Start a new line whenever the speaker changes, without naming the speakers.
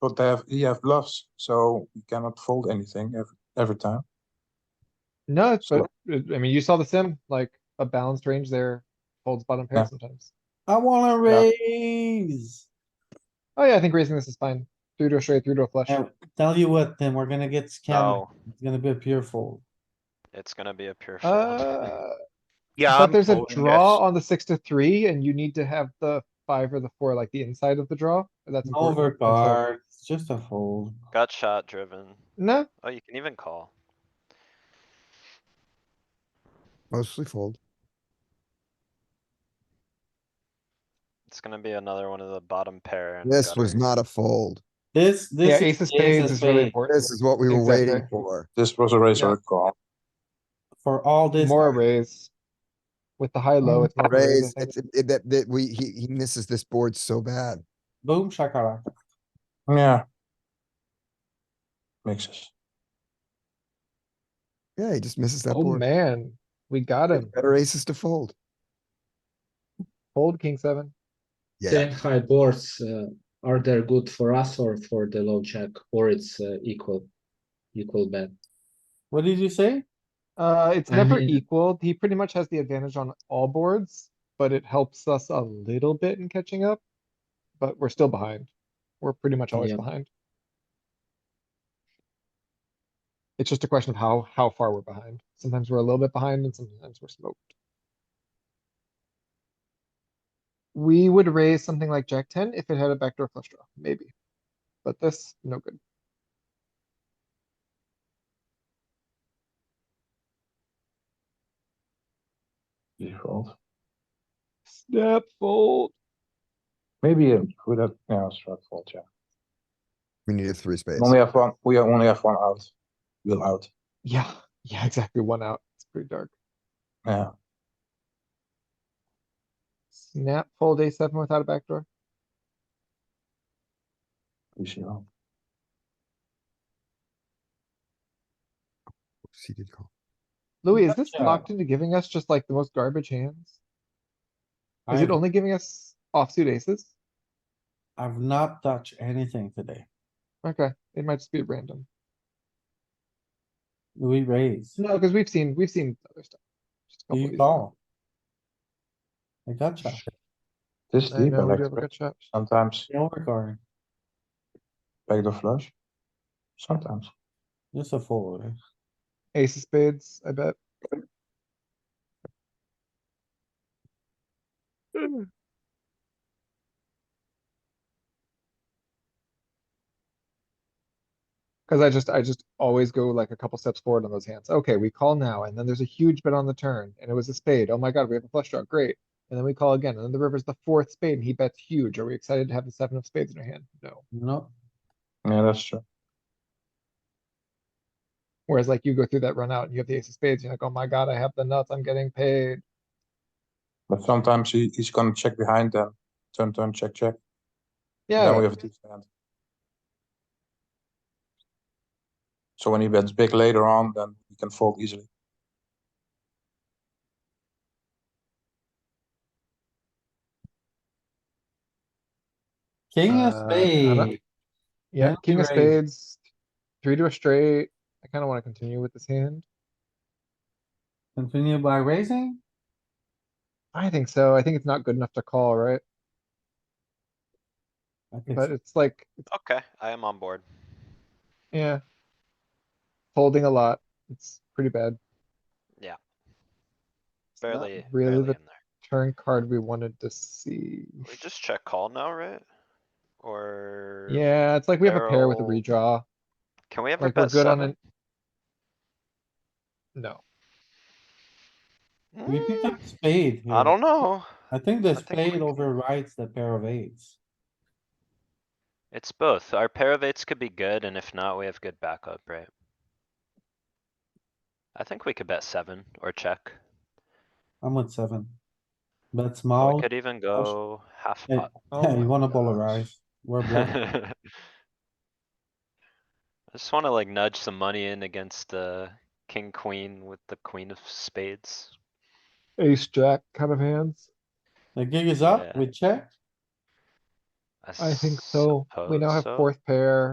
But they have, he have bluffs, so you cannot fold anything every, every time.
No, it's,
So-
I mean, you saw the sim, like a balanced range there, folds bottom
Yeah.
pair sometimes.
I wanna
Yeah.
raise.
Oh yeah, I think raising this is fine. Through to a straight, through to a flush.
Yeah, Tell you what, then we're gonna get
Oh.
scammed.
No,
It's gonna be a pure fold.
Oh, it's gonna be a pure fold.
Uh,
Yeah.
but
I'm
there's a
folding
draw
this.
on the six to three and you need to have the five or the four, like the inside of the draw. That's important. And so-
Overcard, it's just a fold.
Got shot driven.
No,
Oh, you can even call.
Mostly fold.
It's gonna be another one of the bottom pair. and
This was
gutter.
not a fold.
This,
yeah,
this.
ace of
the ace
spades is really
spades.
important.
This is what we were waiting
Exactly.
for.
This was a raise or
Yeah.
a call.
For all this.
More a raise. With the high low, it's more of a raise, I
Raise,
think.
it's, it- that, that we, he, he misses this board so bad.
Boom shakalaka.
Yeah. Mixes.
Yeah, he just misses that
Oh
board.
man, we got him.
Better aces to fold.
Fold king seven.
Yeah,
Saying high boards, uh, are they good for us or for the low jack, or it's uh, equal, equal bet?
What did you say?
Uh, it's
I
never
mean-
equal. He pretty much has the advantage on all boards, but it helps us a little bit in catching up. But we're still behind. We're pretty much always
Yeah.
behind. It's just a question of how, how far we're behind. Sometimes we're a little bit behind and sometimes we're smoked. We would raise something like jack ten if it had a backdoor flush draw, maybe. But this, no good.
Default.
Snap fold.
Maybe uh, with that, yeah, straight fold, yeah.
we need a three space.
Only have one, we only have one out. Wheel out,
Yeah, yeah, exactly. One out. It's pretty dark.
yeah.
Snap fold a seven without a backdoor.
we see how.
Oops, He did call.
Louis, is this
Gotcha.
locked into giving us just like the most garbage hands? Is it
I've-
only giving us offsuit aces?
I've not touched anything today.
Okay, it might just be random.
We raise.
No, because we've seen, we've seen other stuff. Just a couple
Do
of
You
these now.
call. I gotcha.
This
I
deep, I
know, we
like
do have a
to-
good shot.
sometimes
No overcard,
backdoor flush. Sometimes.
just a fold.
Ace of spades, I bet. Cause I just, I just always go like a couple steps forward on those hands. Okay, we call now, and then there's a huge bet on the turn, and it was a spade. Oh my god, we have a flush draw, great. And then we call again, and then the river's the fourth spade, and he bets huge. Are we excited to have the seven of spades in our hand? No.
No,
Yeah, that's true.
Whereas like you go through that run out and you have the ace of spades, you're like, oh my god, I have the nuts, I'm getting paid.
But sometimes he, he's gonna check behind them, turn, turn, check, check.
Yeah.
Then we have a two stand. So when he bets big later on, then he can fold easily.
king of
Uh, I don't-
spades.
Yeah,
Yeah,
king of
raise.
spades, three to a straight. I kinda wanna continue with this hand.
Continue by raising?
I think so. I think it's not good enough to call, right?
I think
But
so.
it's like, it's-
Okay, I am on board.
yeah. Folding a lot. It's pretty bad. It's not
Barely, barely
Really
in there.
the turn card we wanted to see.
We just check call now, right? Or?
Yeah, it's like we have a pair with a
barrel.
redraw.
Can we ever
Like we're
bet
good on
seven?
an. No,
We picked
Mm,
up spade.
I
here.
don't know.
I think the
I think we
spade
can-
overrides the pair of eights.
It's both. Our pair of eights could be good, and if not, we have good backup, right? I think we could bet seven or check.
I'm with seven. But
or
small,
We could even go half
Hey,
pot.
Oh
yeah,
my
you wanna
gosh.
polarize. We're black.
I just wanna like nudge some money in against uh king, queen with the queen of spades.
ace, jack kind of hands.
The gig is up,
Yeah.
we check.
I think so. We now have
suppose so.
fourth pair.